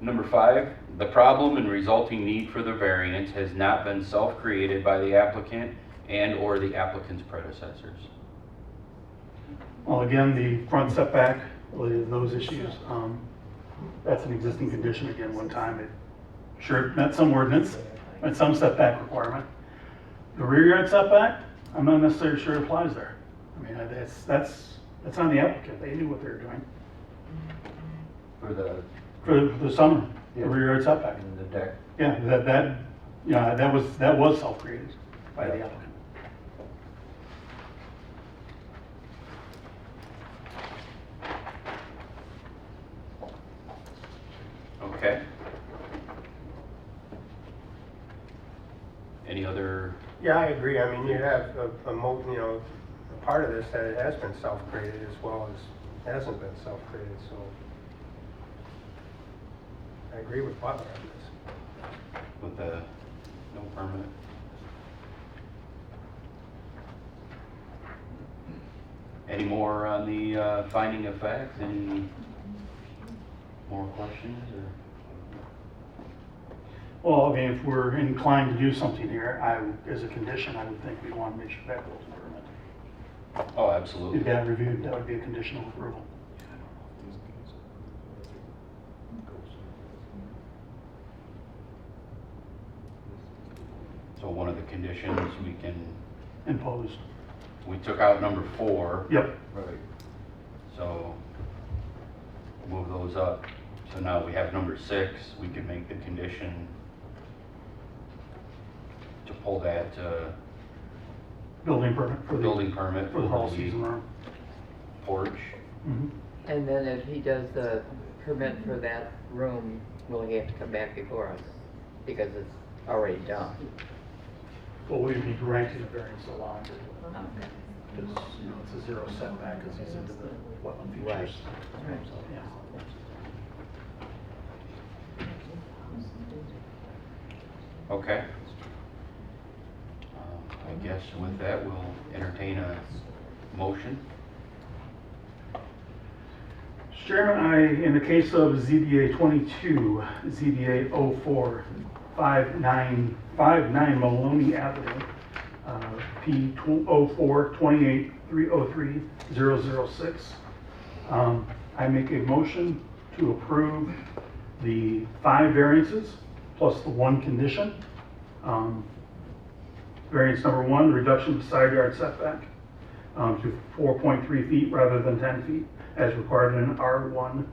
Number five, the problem and resulting need for the variance has not been self-created by the applicant and/or the applicant's predecessors. Well, again, the front setback, related to those issues, um, that's an existing condition again, one time it, sure, it met some ordinance, met some setback requirement. The rear yard setback, I'm not necessarily sure it applies there. I mean, that's, that's, that's on the applicant, they knew what they were doing For the, for the summer, the Yeah. rear yard setback. in the deck. Yeah, that, that, you know, that was, that was self-created by the applicant. Okay? Any other, Yeah, I agree. I mean, you have a, a mo, you know, a part of this that it has been self-created as well as hasn't been self-created, so. I agree with Butler on this. with the, no permit? Any more on the uh, finding of facts? Any more questions or? Well, I mean, if we're inclined to do something here, I, as a condition, I would think we want to make sure that goes in permit. Oh, If absolutely. that reviewed, that would be a conditional approval. So one of the conditions we can, Imposed. we took out number four. Yep. Right. So move those up. So now we have number six, we can make the condition to pull that uh, Building permit for the. building permit For the for whole season the room. porch. Mhm. And then if he does the permit for that room, will he have to come back before us? Because it's already done. But we'd be granting a variance allowing it. Because, you know, it's a zero setback because he's into the wetland Right. features. So, yeah. Okay. Um, I guess with that, we'll entertain a motion. Mr. Chairman, I, in the case of ZBA 22, ZBA 045959 Maloney Avenue, uh, P 0428303006, um, I make a motion to approve the five variances plus the one condition. Um, Variance number one, reduction of side yard setback um, to 4.3 feet rather than 10 feet as required in an R1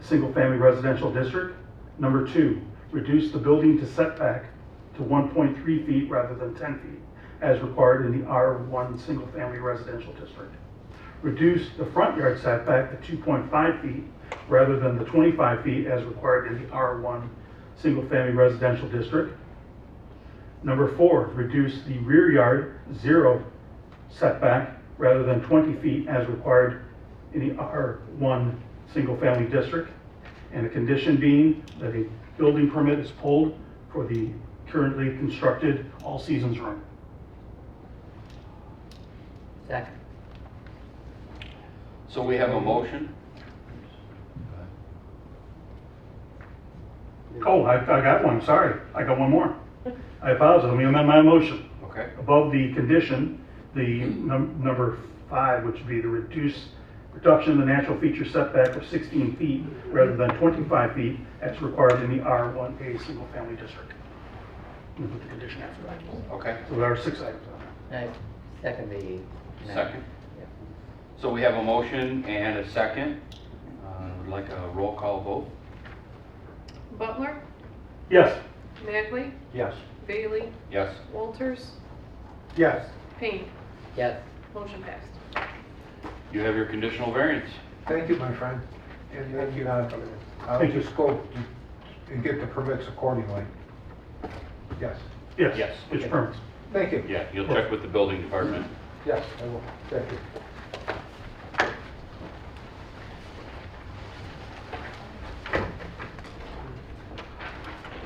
single-family residential district. Number two, reduce the building to setback to 1.3 feet rather than 10 feet as required in the R1 single-family residential district. Reduce the front yard setback to 2.5 feet rather than the 25 feet as required in the R1 single-family residential district. Number four, reduce the rear yard zero setback rather than 20 feet as required in the R1 single-family district. And the condition being that a building permit is pulled for the currently constructed all-seasons room. Second. So we have a motion. Oh, I, I got one, sorry. I got one more. I apologize, let me amend my motion. Okay, Above the condition, the num- number five, which would be the reduce, reduction of the natural feature setback of 16 feet rather than 25 feet as required in the R1A single-family district. We'll put the condition after that. okay, So there are six items on there. I second the. second. So we have a motion and a second. Uh, Would like a roll call vote? Butler, Yes, Magley, Yes. Bailey, Yes. Walters, Yes, Payne. Yes, Motion passed. You have your conditional variance. Thank you, my friend. And thank you for then, uh, coming in. I'll Thank you. just go and get the permits accordingly. Yes. yes, Yes. it's permits. Thank you. Yeah, you'll check with the building department. Yes, I will. Thank you.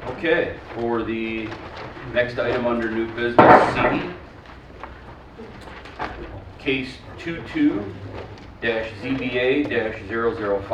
Okay, for the next item under new business, C. Case 22-ZBA-005.